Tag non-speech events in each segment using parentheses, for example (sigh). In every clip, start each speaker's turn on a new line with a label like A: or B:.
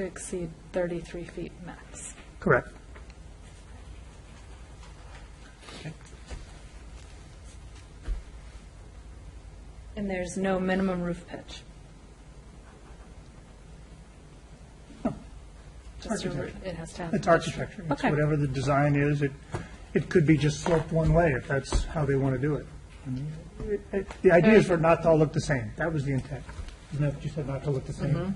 A: to exceed 33 feet max.
B: Correct.
A: And there's no minimum roof pitch.
B: Oh.
A: Just a roo-
B: Architect.
A: It has to have.
B: (laughs) It's architecture. It's
A: Okay.
B: whatever the design is. It, it could be just sloped one way if that's how they want to do it. It- it- The idea is for it not to all look the same. That was the intent. Isn't that what you said, not to look the same?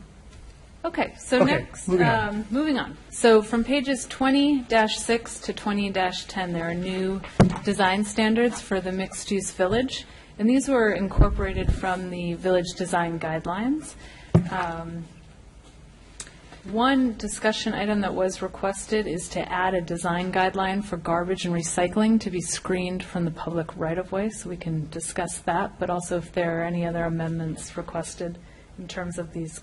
A: Okay, so
B: Okay,
A: next,
B: moving on.
A: um, moving on. So from pages 20-6 to 20-10, there are new design standards for the mixed-use village, and these were incorporated from the village design guidelines. Um, One discussion item that was requested is to add a design guideline for garbage and recycling to be screened from the public right-of-way, so we can discuss that, but also if there are any other amendments requested in terms of these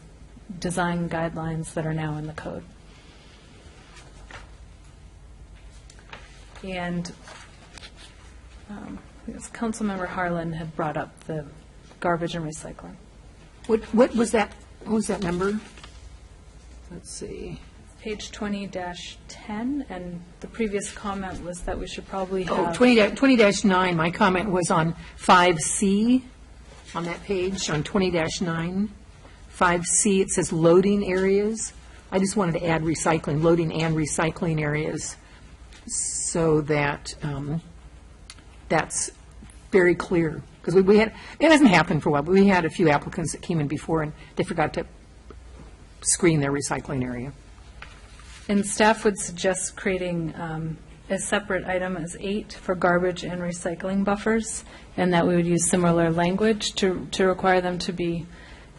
A: design guidelines that are now in the code. And um, I guess Councilmember Harlan had brought up the garbage and recycling.
C: What, what was that, what was that number? Let's see.
A: Page 20-10, and the previous comment was that we should probably have.
C: Oh, 20 da- 20-9, my comment was on 5C on that page, on 20-9. 5C, it says loading areas. I just wanted to add recycling, loading and recycling areas, so that um, that's very clear. Because we had, it hasn't happened for a while, but we had a few applicants that came in before, and they forgot to screen their recycling area.
A: And staff would suggest creating um, a separate item as eight for garbage and recycling buffers, and that we would use similar language to, to require them to be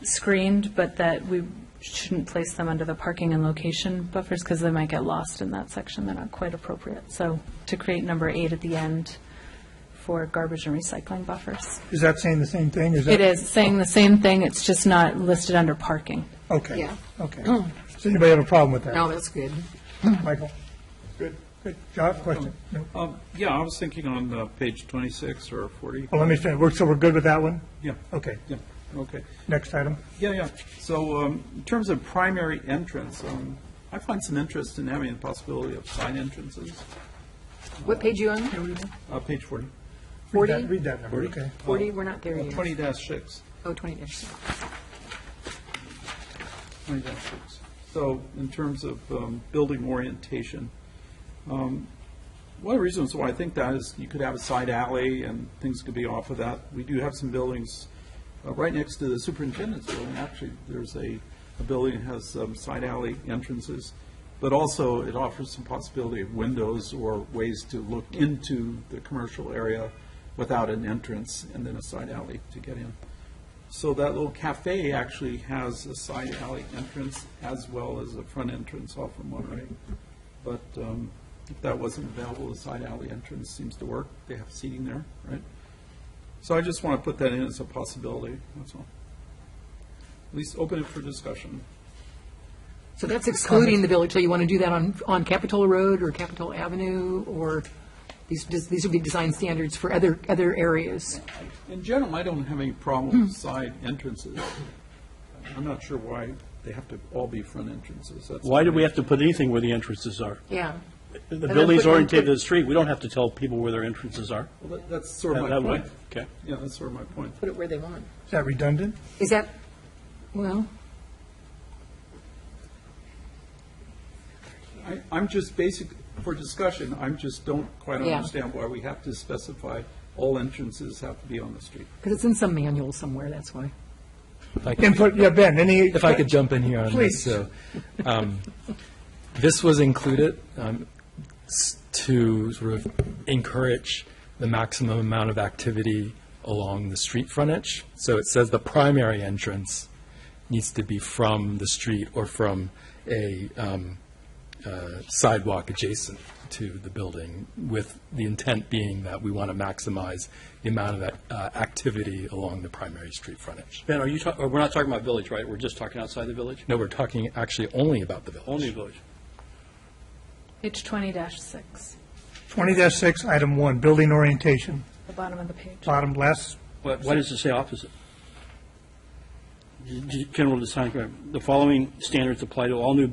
A: screened, but that we shouldn't place them under the parking and location buffers, because they might get lost in that section, they're not quite appropriate. So to create number eight at the end for garbage and recycling buffers.
B: Is that saying the same thing?
A: It is saying the same thing, it's just not listed under parking.
B: Okay,
C: Yeah.
B: okay. Does anybody have a problem with that?
C: No, Oh, that's good.
B: Michael? Good. Good. John, question? No.
D: Um, Yeah, I was thinking on uh, page 26 or 40.
B: Well, Oh, let me finish. We're- So we're good with that one?
D: Yeah,
B: Okay.
D: yeah, okay.
B: Next item.
D: Yeah, yeah. So um, in terms of primary entrance, um, I find some interest in having the possibility of side entrances.
C: What page you on?
D: Uh, Page 40,
B: Read
C: 40?
B: that- Read that number, okay.
C: 40, we're not there
D: Uh,
C: yet.
D: 20-6,
C: Oh, 20 dash.
D: 20-6. So in terms of um, building orientation, um, one of the reasons why I think that is you could have a side alley and things could be off of that. We do have some buildings uh, right next to the superintendent's building. Actually, there's a, a building that has um, side alley entrances, but also it offers some possibility of windows or ways to look into the commercial area without an entrance and then a side alley to get in. So that little cafe actually has a side alley entrance as well as a front entrance off of Monterey. But um, if that wasn't available, the side alley entrance seems to work. They have seating there, right? So I just want to put that in as a possibility, that's all. At least open it for discussion.
C: So that's excluding the village, so you want to do that on, on Capitola Road or Capitol Avenue, or these, these would be design standards for other, other areas?
D: In general, I don't have any problem
E: (clears throat)
D: with side entrances. I'm not sure why they have to all be front entrances. That's-
E: Why do we have to put anything where the entrances are?
C: Yeah.
E: The
C: then
E: building's
C: put-
E: oriented to the street, we don't have to tell people where their entrances are.
D: Well, that- That's sort of my
E: That that way,
D: point.
E: okay.
D: Yeah, that's sort of my point.
C: Put it where they want.
B: Is that redundant?
C: Is that, well,
D: I, I'm just basic, for discussion, I'm just don't quite
C: Yeah.
D: understand why we have to specify all entrances have to be on the street.
C: because it's in some manual somewhere, that's why.
B: Input, yeah, Ben, any?
F: If I could jump in here on
B: Please.
F: this, so, um, this was included um, s- to sort of encourage the maximum amount of activity along the street frontage. So it says the primary entrance needs to be from the street or from a um, uh, sidewalk adjacent to the building, with the intent being that we want to maximize the amount of uh, activity along the primary street frontage.
E: Ben, are you, talk- or we're not talking about village, right? We're just talking outside the village?
F: No, we're talking actually only about the village.
E: Only village.
A: Page 20-6,
B: Twenty six, item one, building orientation,
A: the bottom of the page.
B: bottom left,
E: Why why does it say opposite? G- g- General design, the following standards apply to all new